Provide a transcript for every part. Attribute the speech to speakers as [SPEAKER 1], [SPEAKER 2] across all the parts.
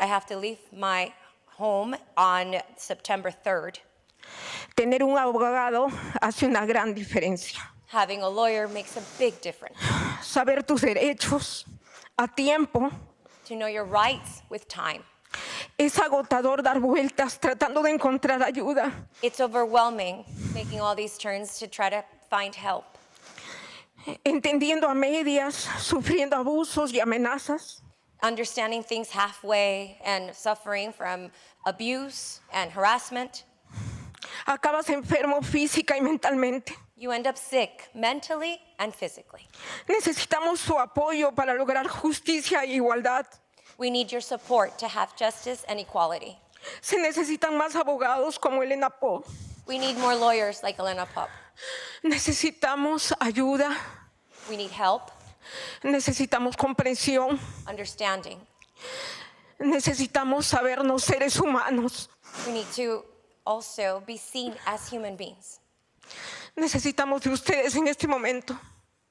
[SPEAKER 1] I have to leave my home on September 3rd.
[SPEAKER 2] Tener un abogado hace una gran diferencia.
[SPEAKER 1] Having a lawyer makes a big difference.
[SPEAKER 2] Saber tus derechos a tiempo
[SPEAKER 1] To know your rights with time.
[SPEAKER 2] es agotador dar vueltas tratando de encontrar ayuda.
[SPEAKER 1] It's overwhelming making all these turns to try to find help.
[SPEAKER 2] entendiendo a medias, sufriendo abusos y amenazas.
[SPEAKER 1] Understanding things halfway and suffering from abuse and harassment.
[SPEAKER 2] Acabas enfermo física y mentalmente.
[SPEAKER 1] You end up sick mentally and physically.
[SPEAKER 2] Necesitamos su apoyo para lograr justicia e igualdad.
[SPEAKER 1] We need your support to have justice and equality.
[SPEAKER 2] Se necesitan más abogados como Elena Poe.
[SPEAKER 1] We need more lawyers like Elena Pop.
[SPEAKER 2] Necesitamos ayuda,
[SPEAKER 1] We need help,
[SPEAKER 2] necesitamos comprensión,
[SPEAKER 1] understanding.
[SPEAKER 2] necesitamos sabernos seres humanos,
[SPEAKER 1] We need to also be seen as human beings.
[SPEAKER 2] necesitamos de ustedes en este momento.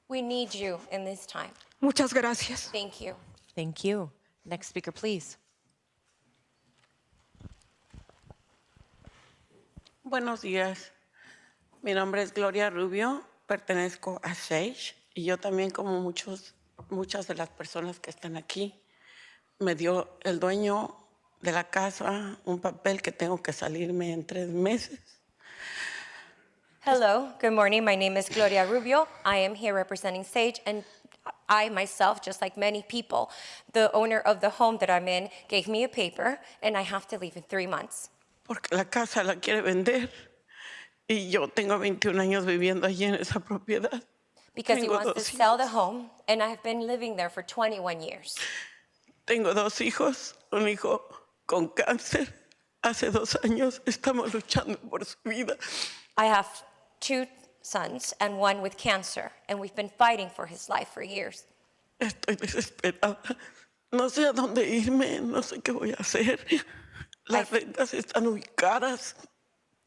[SPEAKER 1] We need you in this time.
[SPEAKER 2] Muchas gracias.
[SPEAKER 1] Thank you.
[SPEAKER 3] Thank you. Next speaker, please.
[SPEAKER 4] Buenos días. Mi nombre es Gloria Rubio, pertenezco a SAGE y yo también como muchos, muchas de las personas que están aquí, me dio el dueño de la casa un papel que tengo que salirme en tres meses.
[SPEAKER 1] Hello, good morning. My name is Gloria Rubio. I am here representing Sage, and I myself, just like many people, the owner of the home that I'm in, gave me a paper, and I have to leave in three months
[SPEAKER 4] porque la casa la quiere vender y yo tengo 21 años viviendo allí en esa propiedad.
[SPEAKER 1] because he
[SPEAKER 4] Tengo
[SPEAKER 1] wants to
[SPEAKER 4] dos
[SPEAKER 1] sell the
[SPEAKER 4] hijos.
[SPEAKER 1] home, and I've been living there for 21 years.
[SPEAKER 4] Tengo dos hijos, un hijo con cáncer. Hace dos años estamos luchando por su vida.
[SPEAKER 1] I have two sons and one with cancer, and we've been fighting for his life for years.
[SPEAKER 4] Estoy desesperada. No sé a dónde irme, no sé qué voy a hacer. Las rentas están muy caras.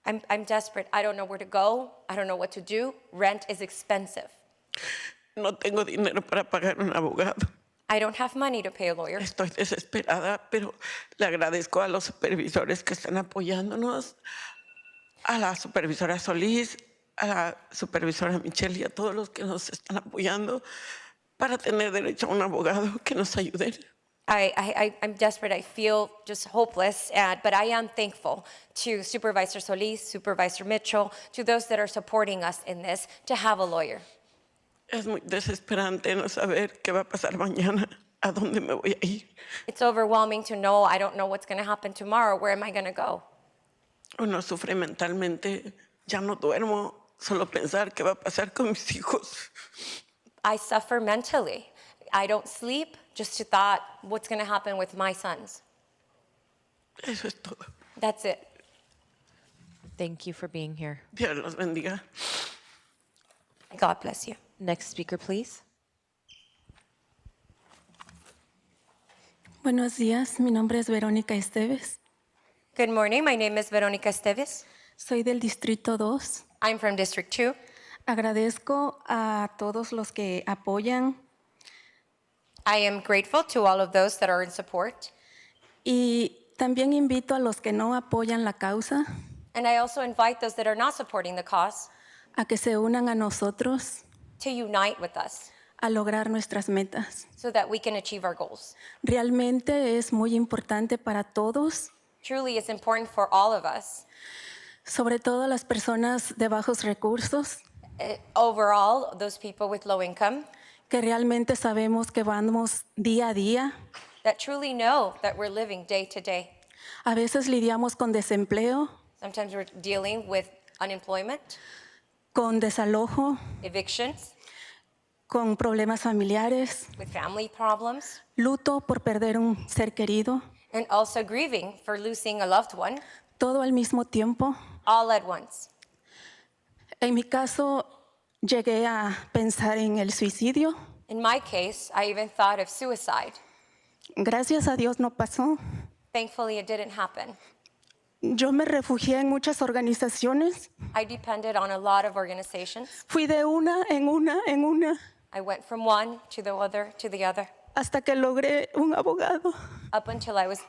[SPEAKER 1] I'm, I'm desperate. I don't know where to go. I don't know what to do. Rent is expensive.
[SPEAKER 4] No tengo dinero para pagar un abogado.
[SPEAKER 1] I don't have money to pay a lawyer.
[SPEAKER 4] Estoy desesperada, pero le agradezco a los supervisores que están apoyándonos, a la supervisora Solís, a la supervisora Michelle y a todos los que nos están apoyando para tener derecho a un abogado que nos ayude.
[SPEAKER 1] I, I, I- I'm desperate. I feel just hopeless, and, but I am thankful to Supervisor Solis, Supervisor Mitchell, to those that are supporting us in this to have a lawyer.
[SPEAKER 4] Es muy desesperante no saber qué va a pasar mañana, a dónde me voy a ir.
[SPEAKER 1] It's overwhelming to know I don't know what's going to happen tomorrow. Where am I going to go?
[SPEAKER 4] Uno sufre mentalmente, ya no duermo, solo pensar qué va a pasar con mis hijos.
[SPEAKER 1] I suffer mentally. I don't sleep just to thought what's going to happen with my sons.
[SPEAKER 4] Eso es todo.
[SPEAKER 1] That's it.
[SPEAKER 3] Thank you for being here.
[SPEAKER 4] Dios los bendiga.
[SPEAKER 1] God bless you.
[SPEAKER 3] Next speaker, please.
[SPEAKER 5] Buenos días, mi nombre es Verónica Esteves,
[SPEAKER 1] Good morning. My name is Veronica Esteves.
[SPEAKER 5] soy del Distrito 2.
[SPEAKER 1] I'm from District 2.
[SPEAKER 5] Agradezco a todos los que apoyan
[SPEAKER 1] I am grateful to all of those that are in support.
[SPEAKER 5] y también invito a los que no apoyan la causa
[SPEAKER 1] And I also invite those that are not supporting the cause
[SPEAKER 5] a que se unan a nosotros
[SPEAKER 1] to unite with us
[SPEAKER 5] a lograr nuestras metas.
[SPEAKER 1] so that we can achieve our goals.
[SPEAKER 5] Realmente es muy importante para todos,
[SPEAKER 1] Truly, it's important for all of us,
[SPEAKER 5] sobre todo las personas de bajos recursos,
[SPEAKER 1] eh, overall, those people with low income,
[SPEAKER 5] que realmente sabemos que vamos día a día.
[SPEAKER 1] that truly know that we're living day to day.
[SPEAKER 5] A veces lidiamos con desempleo,
[SPEAKER 1] Sometimes we're dealing with unemployment,
[SPEAKER 5] con desalojo,
[SPEAKER 1] evictions,
[SPEAKER 5] con problemas familiares,
[SPEAKER 1] with family problems,
[SPEAKER 5] luto por perder un ser querido,
[SPEAKER 1] and also grieving for losing a loved one
[SPEAKER 5] todo al mismo tiempo.
[SPEAKER 1] all at once.
[SPEAKER 5] En mi caso, llegué a pensar en el suicidio.
[SPEAKER 1] In my case, I even thought of suicide.
[SPEAKER 5] Gracias a Dios no pasó.
[SPEAKER 1] Thankfully, it didn't happen.
[SPEAKER 5] Yo me refugié en muchas organizaciones.
[SPEAKER 1] I depended on a lot of organizations.
[SPEAKER 5] Fui de una en una en una
[SPEAKER 1] I went from one to the other to the other
[SPEAKER 5] hasta que logré un abogado.
[SPEAKER 1] up until I was